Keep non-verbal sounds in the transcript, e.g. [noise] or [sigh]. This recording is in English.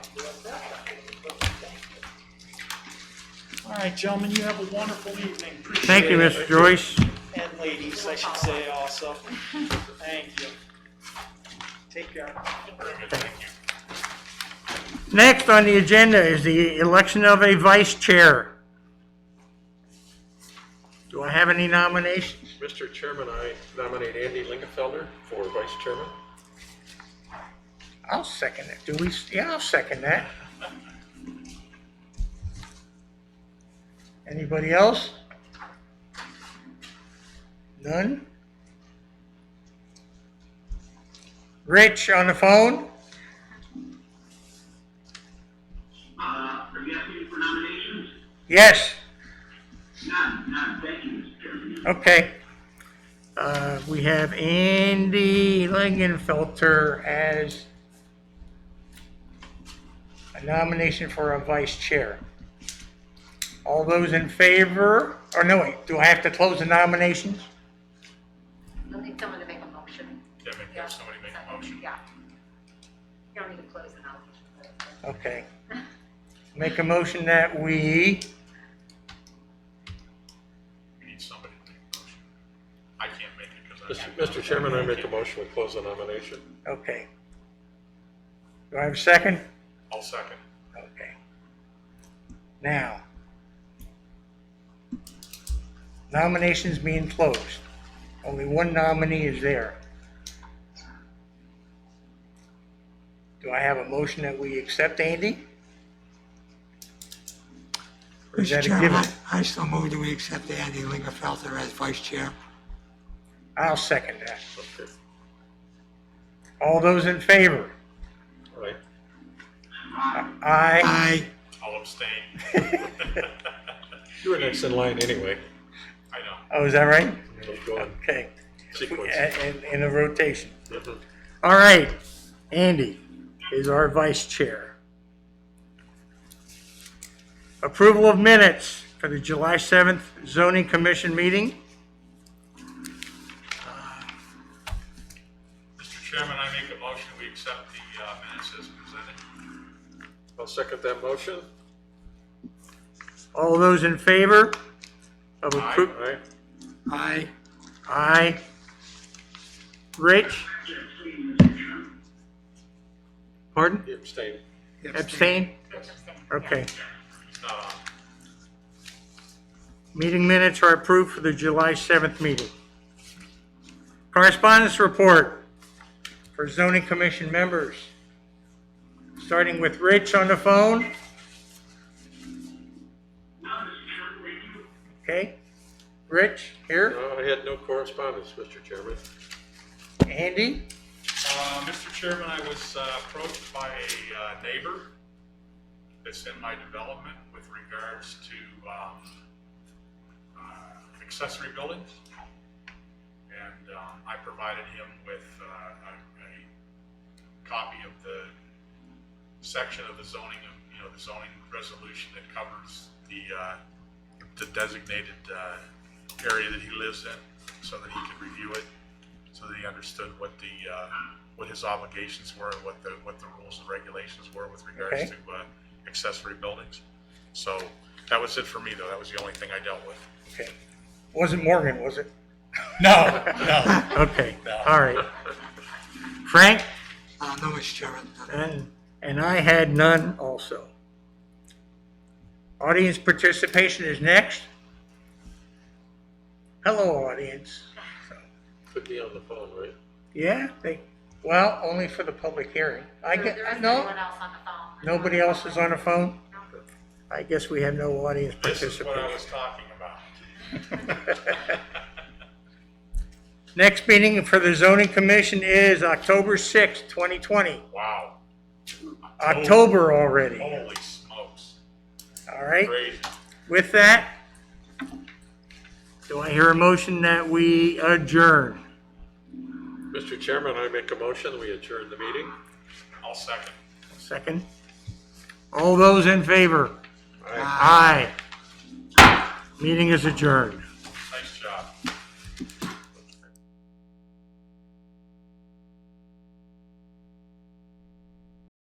All right, gentlemen, you have a wonderful evening. Appreciate Thank you, it. Mr. Joyce. And ladies, I should say also. Thank you. Take care. Next on the agenda is the election of a vice chair. Do I have any nominations? Mr. Chairman, I nominate Andy Lingenfelder for vice chairman. I'll second it. Do we, yeah, I'll second that. Anybody else? None? Rich on the phone? Uh, are you asking for nominations? Yes. Not, not, thank you, Mr. Chairman. Okay. Uh, we have Andy Lingenfelter as a nomination for a vice chair. All those in favor, or no, wait, do I have to close the nominations? I will need someone to make a motion. Yeah, make- have somebody make a motion. Yeah. You don't need to close the nomination. Okay. Make a motion that we, We need somebody to make a motion. I can't make it because I. Mr. Chairman, I make a motion to close the nomination. okay. Do I have a second? I'll second. Okay. Now, nominations being closed. Only one nominee is there. Do I have a motion that we accept Andy? Or is Mr. that a Chairman, given? I- I so move that we accept Andy Lingerfelter as vice chair. I'll second that. Okay. All those in favor? All right. Aye. I, I'll abstain. You were next in line anyway. I know. Oh, is that right? Keep going. Okay. Sequence. In, in a rotation. Mhm. All right, Andy is our vice chair. Approval of minutes for the July 7th zoning commission meeting. Mr. Chairman, I make a motion, we accept the uh, minutes as presented. I'll second that motion. All those in favor of All appro- right. I, Aye. Rich, Yes, please, Mr. Chairman. pardon? You abstain. Abstain? Okay. It's not on. Meeting minutes are approved for the July 7th meeting. Correspondence report for zoning commission members. Starting with Rich on the phone, No, Mr. Chairman, were you, okay? Rich, here, No, I had no correspondence, Mr. Chairman. Andy, Uh, Mr. Chairman, I was uh, approached by a uh, neighbor that's in my development with regards to um, uh, accessory buildings. And um, I provided him with uh, a a copy of the section of the zoning, you know, the zoning resolution that covers the, uh, the designated uh, area that he lives in, so that he could review it so that he understood what the, uh, what his obligations were, and what the, what the rules and regulations were with regards Okay. to uh, accessory buildings. So that was it for me, though. That was the only thing I dealt with. okay. Wasn't Morgan, was it? No, no. Okay, all right. Frank, uh, no, Mr. Chairman. no. and, and I had none also. Audience participation is next. Hello, audience. Could be on the phone, right? Yeah, they, well, only for the public hearing. I There- get, There isn't no, anyone else on the phone. nobody else is on the phone? No. I guess we have no audience This is what I participation. was talking about. [laughs] Next meeting for the zoning commission is October sixth, twenty twenty. Wow. October already, Holy smokes. all right? Crazy. With that, do I hear a motion that we adjourn? Mr. Chairman, I make a motion, we adjourn the meeting. I'll second. Second? All those in favor? Aye. Meeting is adjourned.